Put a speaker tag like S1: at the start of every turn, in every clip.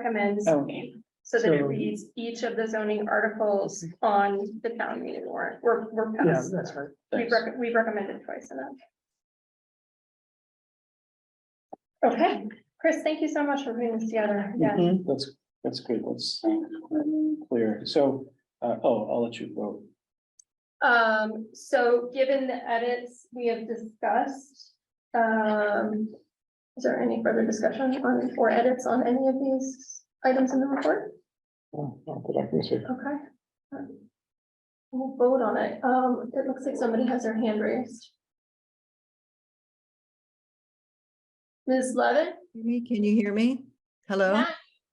S1: recommends,
S2: Oh,
S1: so that it
S3: so-
S1: reads each of the zoning articles on the town meeting warrant. We're, we're.
S3: Yeah, that's right.
S1: We've,
S2: thanks.
S1: rec- we've recommended twice enough. Okay, Chris, thank you so much for putting this together.
S3: Mm-hmm.
S1: Yeah.
S2: Mhm.
S3: That's, that's good. That's clear. So, uh, oh, I'll let you go.
S1: Um, so given the edits we have discussed, um, is there any further discussion on, or edits on any of these items in the report?
S4: Oh, not that I can see.
S1: Okay. We'll vote on it. Um, it looks like somebody has their hand raised. Ms. Levin?
S5: Me, Can you hear me? Hello?
S1: Yeah,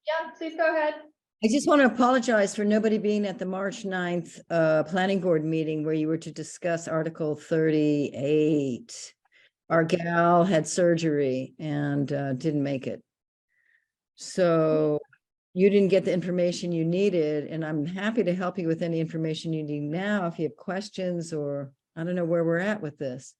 S1: Yeah, please go ahead.
S5: I just want to apologize for nobody being at the March 9th uh, Planning Board meeting where you were to discuss Article 38. Our gal had surgery and uh, didn't make it. So you didn't get the information you needed, and I'm happy to help you with any information you need now if you have questions or I don't know where we're at with this.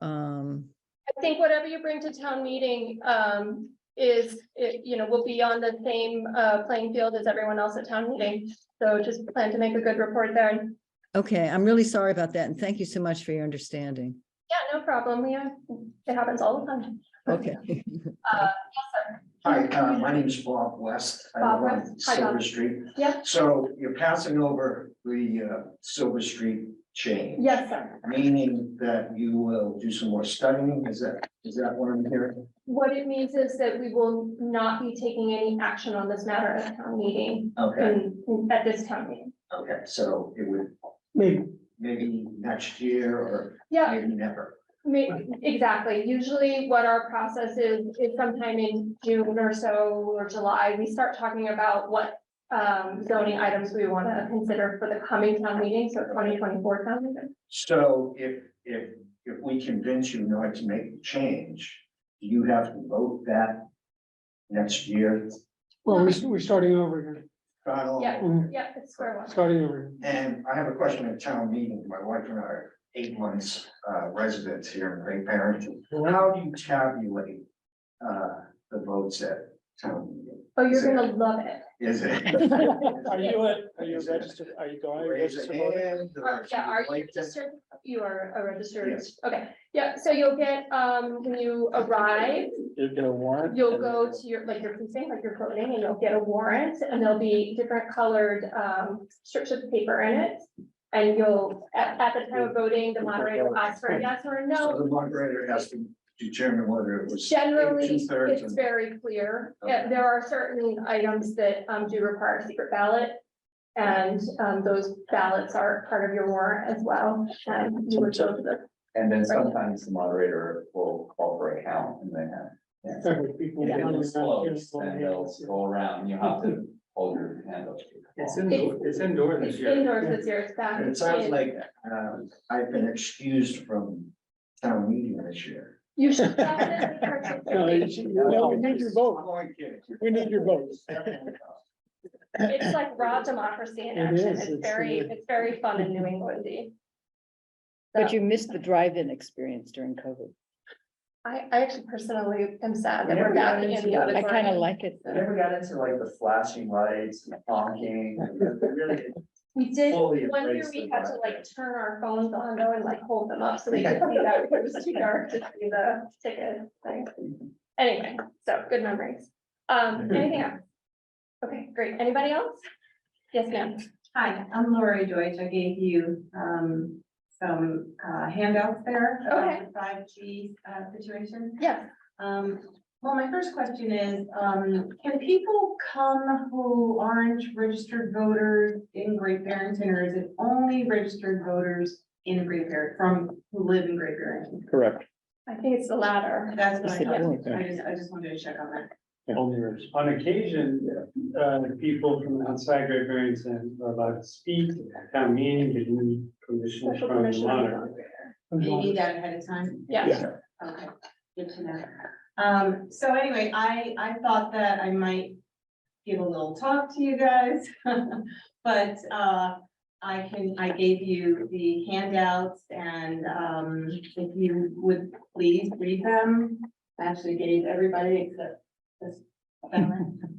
S5: Um,
S1: I think whatever you bring to town meeting, um, is, it- you know, will be on the same, uh, playing field as everyone else at town meeting. So just plan to make a good report there. And,
S5: Okay, I'm really sorry about that, and thank you so much for your understanding.
S1: Yeah, no problem. Yeah, it happens all the time.
S5: Okay.
S6: Hi, uh, my name is Bob West. I
S1: Bob
S6: live on
S1: West. Hi,
S6: Silver
S1: Bob.
S6: Street.
S1: Yeah.
S6: So you're passing over the uh, Silver Street chain,
S1: Yes, sir.
S6: meaning that you will do some more studying. Is that, is that what I'm hearing?
S1: What it means is that we will not be taking any action on this matter at town meeting,
S6: Okay,
S1: in- in- at this town meeting.
S6: okay, so it would
S3: Maybe,
S6: maybe next year or
S1: Yeah,
S6: maybe never.
S1: Ma- exactly. Usually what our process is, is sometime in June or so or July, we start talking about what um, zoning items we want to consider for the coming town meeting, so twenty twenty-four town meeting.
S6: So if, if, if we convince you not to make the change, do you have to vote that next year?
S3: well, we, we're starting over
S6: Start all
S1: Yeah.
S3: here,
S1: Yeah, it's square one.
S3: starting over. here.
S6: And I have a question at town meeting. My wife and I are eight months uh, residents here in Great Barrington. How do you tabulate uh, the votes at town meeting?
S1: Oh, you're gonna love it.
S6: Is it?
S3: Are you a, are you a registered, are you going?
S6: Raise a hand
S1: Are-
S6: or
S1: Uh, Yeah, are you
S6: like to-
S1: registered? You are a registered,
S6: Yes.
S1: okay, yeah, so you'll get, um, when you arrive,
S3: You're gonna warrant?
S1: you'll go to your, like your precinct, like you're voting, and you'll get a warrant, and there'll be different colored, um, strips of paper in it. And you'll, at, at the time of voting, the moderator will ask for a yes or a
S6: So
S1: no.
S6: the moderator has to determine whether it was.
S1: Generally,
S6: Two-thirds
S1: it's
S6: and-
S1: very clear,
S6: Okay.
S1: Yeah, there are certain items that, um, do require a secret ballot. And, um, those ballots are part of your warrant as well, and you would go to the
S7: And then sometimes the moderator will call for a count and then have. If it was close, then they'll go around, and you have to hold your hand up. to the
S8: It's
S7: wall.
S8: indoor, it's indoor this
S1: It's
S8: year.
S1: indoors this year, it's back.
S6: And It sounds
S1: in.
S6: like um, I've been excused from town meeting this year.
S1: You should definitely
S3: No, you
S1: participate.
S3: should- no, we need your vote.
S6: I'm only kidding.
S3: We need your votes.
S1: It's like raw democracy in
S3: It
S1: action.
S3: is,
S1: It's
S3: it's
S1: very,
S3: really-
S1: it's very fun in New Englandy.
S2: But you missed the drive-in experience during COVID.
S1: I, I actually personally am sad that
S7: Yeah,
S1: we're
S7: we got
S1: back in
S7: into
S1: the
S7: that.
S1: other.
S2: I kind of
S1: room.
S2: like it.
S7: I never got into like the flashing lights, and honking, and really
S1: We did,
S7: fully
S1: one year
S7: embrace
S1: we
S7: the
S1: had to
S7: vibe.
S1: like turn our phones on though and like hold them up so we could see that it was too dark to see the ticket thing. Anyway, so good memories. Um, anything else? Okay, great. Anybody else? Yes, ma'am.
S9: Hi, I'm Lori Deutsch. I gave you um some uh handouts there
S1: Okay.
S9: about the five G uh situation.
S1: Yes.
S9: Um, well, my first question is, um, can people come who aren't registered voters in Great Barrington? Or is it only registered voters in Great Barrington, from who live in Great Barrington?
S3: Correct.
S1: I think it's the latter.
S9: That's what I thought. I
S3: Yeah.
S9: just, I just wanted to check on that.
S3: Only yours.
S8: On occasion, uh, people from outside Great Barrington are allowed to speak, at town meeting, get new permission
S1: Special
S8: from the
S1: permission.
S8: monitor.
S9: Do you need that ahead of time?
S1: Yeah,
S9: Okay, good to know. Um, so anyway, I, I thought that I might give a little talk to you guys. But, uh, I can, I gave you the handouts and, um, if you would please read them. I Actually gave everybody except this. gentleman.